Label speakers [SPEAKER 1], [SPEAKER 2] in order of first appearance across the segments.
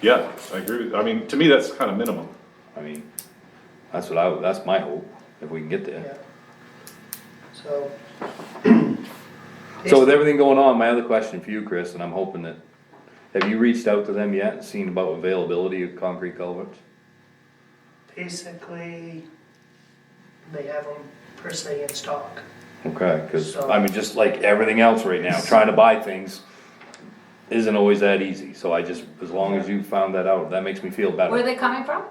[SPEAKER 1] Yeah, I agree with, I mean, to me, that's kind of minimum.
[SPEAKER 2] I mean, that's what I, that's my hope, if we can get
[SPEAKER 3] yeah.
[SPEAKER 2] there.
[SPEAKER 3] So.
[SPEAKER 2] So with everything going on, my other question for you, Chris, and I'm hoping that, have you reached out to them yet, and seen about availability of concrete culverts?
[SPEAKER 3] Basically, they have them per se in stock.
[SPEAKER 2] Okay, cause I mean, just like everything else right now, trying to buy things isn't always that easy, so I just, as long as you found that out, that makes me feel
[SPEAKER 4] Where are
[SPEAKER 2] better.
[SPEAKER 4] they coming from?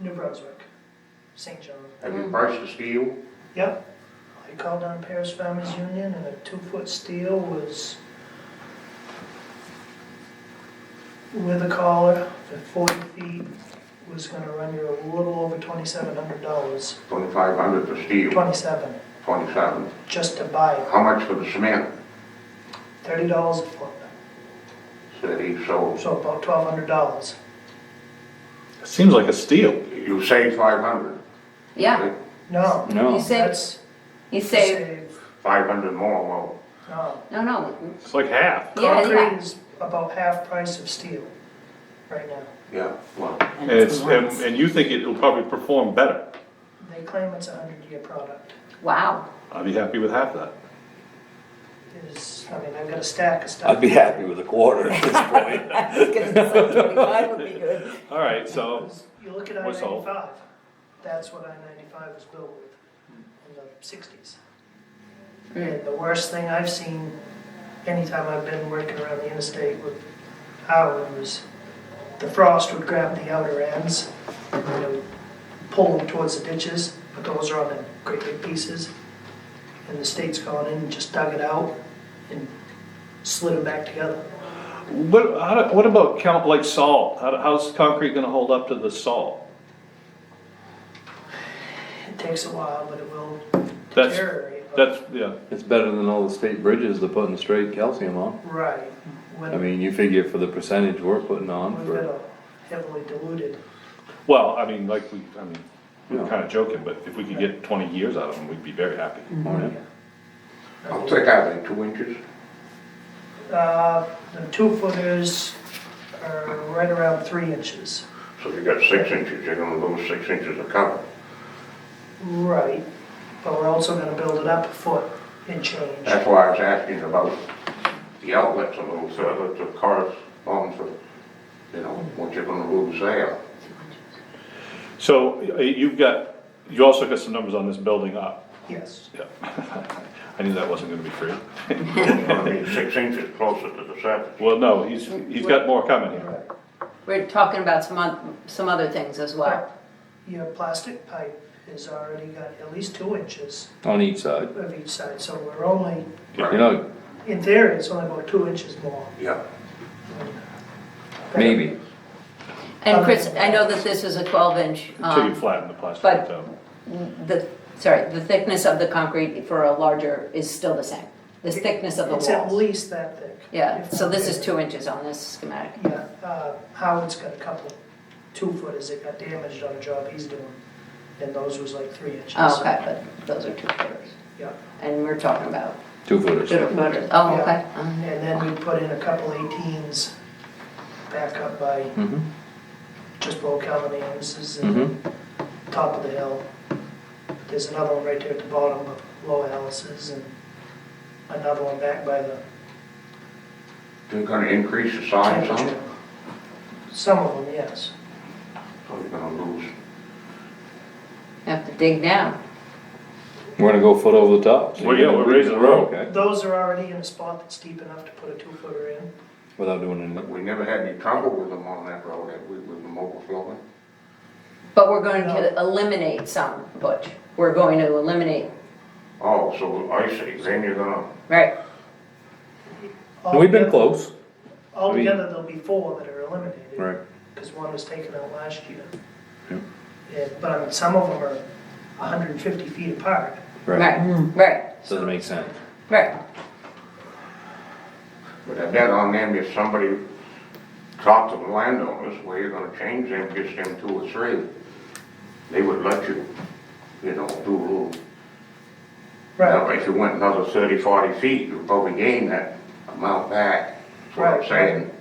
[SPEAKER 3] New Brunswick, St. John.
[SPEAKER 5] Have you priced the steel?
[SPEAKER 3] Yep. I called on Paris Farmers Union and a two-foot steel was with a collar for forty feet, was gonna run you a little over twenty-seven hundred dollars.
[SPEAKER 5] Twenty-five hundred for steel,
[SPEAKER 3] Twenty-seven,
[SPEAKER 5] twenty-seven.
[SPEAKER 3] just to buy it,
[SPEAKER 5] How much for the cement?
[SPEAKER 3] thirty dollars a foot,
[SPEAKER 5] Thirty, so
[SPEAKER 3] so about twelve hundred dollars.
[SPEAKER 1] It seems like a steal.
[SPEAKER 5] you save five hundred.
[SPEAKER 4] Yeah,
[SPEAKER 3] No,
[SPEAKER 4] you
[SPEAKER 2] No,
[SPEAKER 4] save,
[SPEAKER 3] Oh, that's
[SPEAKER 4] you save,
[SPEAKER 3] save,
[SPEAKER 5] Five hundred more, well,
[SPEAKER 3] no.
[SPEAKER 4] no, no,
[SPEAKER 1] It's like half.
[SPEAKER 4] yeah,
[SPEAKER 3] Concrete
[SPEAKER 4] yeah.
[SPEAKER 3] is about half price of steel right now.
[SPEAKER 5] yeah, well,
[SPEAKER 1] And it's, and and you think it'll probably perform better.
[SPEAKER 3] They claim it's a hundred-year product.
[SPEAKER 4] Wow,
[SPEAKER 1] I'd be happy with half that.
[SPEAKER 3] Is, I mean, I've got a stack of stuff.
[SPEAKER 2] I'd be happy with a quarter at this point.
[SPEAKER 4] I was gonna say twenty-five would be good.
[SPEAKER 1] All right, so,
[SPEAKER 3] You look at I
[SPEAKER 1] What's all?
[SPEAKER 3] ninety-five, that's what I ninety-five was built with in the sixties. And the worst thing I've seen anytime I've been working around the interstate with power was the frost would grab the outer ends and then it would pull them towards the ditches, but those are on in great big pieces. And the state's gone in and just dug it out and slid them back together.
[SPEAKER 1] what, how, do- what about count, like salt? How, do- how's concrete gonna hold up to the salt?
[SPEAKER 3] It takes a while, but it will
[SPEAKER 1] That's-
[SPEAKER 3] deteriorate. but-
[SPEAKER 1] That's, yeah,
[SPEAKER 2] It's better than all the state bridges they're putting straight calcium on.
[SPEAKER 3] Right. When
[SPEAKER 2] I mean, you figure for the percentage we're putting on
[SPEAKER 3] We've got
[SPEAKER 2] for,
[SPEAKER 3] a heavily diluted,
[SPEAKER 1] well, I mean, like, we, I mean, we're
[SPEAKER 2] Yeah.
[SPEAKER 1] kinda joking, but if we could get twenty years out of them, we'd be very happy.
[SPEAKER 2] Oh, yeah.
[SPEAKER 5] how thick are they, two inches?
[SPEAKER 3] uh, the two footers are right around three inches.
[SPEAKER 5] So you got six inches, you're gonna lose six inches of cover.
[SPEAKER 3] Right, but we're also gonna build it up a foot and change.
[SPEAKER 5] That's why I was asking about the outlets a little further to correspond to, you know, what you're gonna lose there.
[SPEAKER 1] So, y- you've got, you also got some numbers on this building up.
[SPEAKER 3] Yes,
[SPEAKER 1] Yeah. I knew that wasn't gonna be free.
[SPEAKER 5] It's gonna be six inches closer to the surface.
[SPEAKER 1] Well, no, he's, he's got more coming here.
[SPEAKER 4] We're talking about some oth- some other things as well.
[SPEAKER 3] your plastic pipe has already got at least two inches
[SPEAKER 2] on each side.
[SPEAKER 3] of each side, so we're only,
[SPEAKER 2] You know,
[SPEAKER 3] in theory, it's only about two inches long.
[SPEAKER 5] Yeah.
[SPEAKER 2] maybe.
[SPEAKER 4] And Chris,
[SPEAKER 3] Um,
[SPEAKER 4] I know that this is a twelve inch,
[SPEAKER 1] Until you
[SPEAKER 4] um,
[SPEAKER 1] flatten the plastic
[SPEAKER 4] but-
[SPEAKER 1] out.
[SPEAKER 4] the, sorry, the thickness of the concrete for a larger is still the same. The thickness of the
[SPEAKER 3] It's at
[SPEAKER 4] walls.
[SPEAKER 3] least that thick.
[SPEAKER 4] Yeah,
[SPEAKER 3] if
[SPEAKER 4] so
[SPEAKER 3] not
[SPEAKER 4] this is
[SPEAKER 3] bigger.
[SPEAKER 4] two inches on this schematic.
[SPEAKER 3] Yeah, uh, Howard's got a couple two footers that got damaged on a job he's doing, and those was like three inches.
[SPEAKER 4] Oh, okay, but those are two footers.
[SPEAKER 3] Yeah,
[SPEAKER 4] And we're talking about
[SPEAKER 2] Two footers.
[SPEAKER 4] two footers. Oh,
[SPEAKER 3] Yeah. Uh-huh.
[SPEAKER 4] okay.
[SPEAKER 3] and
[SPEAKER 4] Uh,
[SPEAKER 3] then we put in a couple eighteens back up by
[SPEAKER 2] Mhm.
[SPEAKER 3] just below Calvin Amos's and
[SPEAKER 2] Mhm.
[SPEAKER 3] top of the hill. There's another one right there at the bottom of Low Alice's and another one back by the
[SPEAKER 5] You're gonna increase the size
[SPEAKER 3] camper
[SPEAKER 5] on it,
[SPEAKER 3] trailer. Some of them, yes.
[SPEAKER 5] so you're gonna lose
[SPEAKER 4] Have to dig down.
[SPEAKER 2] We're gonna go foot over the top. so
[SPEAKER 1] Well,
[SPEAKER 2] you're
[SPEAKER 1] yeah,
[SPEAKER 2] gonna
[SPEAKER 1] we're raising the
[SPEAKER 2] reach-
[SPEAKER 1] road.
[SPEAKER 2] Okay,
[SPEAKER 3] Those are already in a spot that's deep enough to put a two footer in.
[SPEAKER 2] without doing anything.
[SPEAKER 5] We never had any trouble with them on that road, have we, with them overflowing?
[SPEAKER 4] But we're going to eliminate some, Butch. We're going to eliminate,
[SPEAKER 5] Oh, so I see, then you're gonna,
[SPEAKER 4] right?
[SPEAKER 2] And We've been
[SPEAKER 3] Altogether-
[SPEAKER 2] close.
[SPEAKER 3] Altogether, there'll be four that are eliminated.
[SPEAKER 2] Right.
[SPEAKER 3] Because one was taken out last year.
[SPEAKER 2] Yep.
[SPEAKER 3] Yeah, but I mean, some of them are hundred and fifty feet apart.
[SPEAKER 2] Right,
[SPEAKER 4] Right,
[SPEAKER 2] doesn't make sense.
[SPEAKER 4] right.
[SPEAKER 5] but I bet on them if somebody talked to the landowners, well, you're gonna change them, just them two or three. They would let you, you know, do a little, now, if you went another thirty, forty feet, you'd probably gain that amount back, that's what I'm
[SPEAKER 3] Right.
[SPEAKER 5] saying.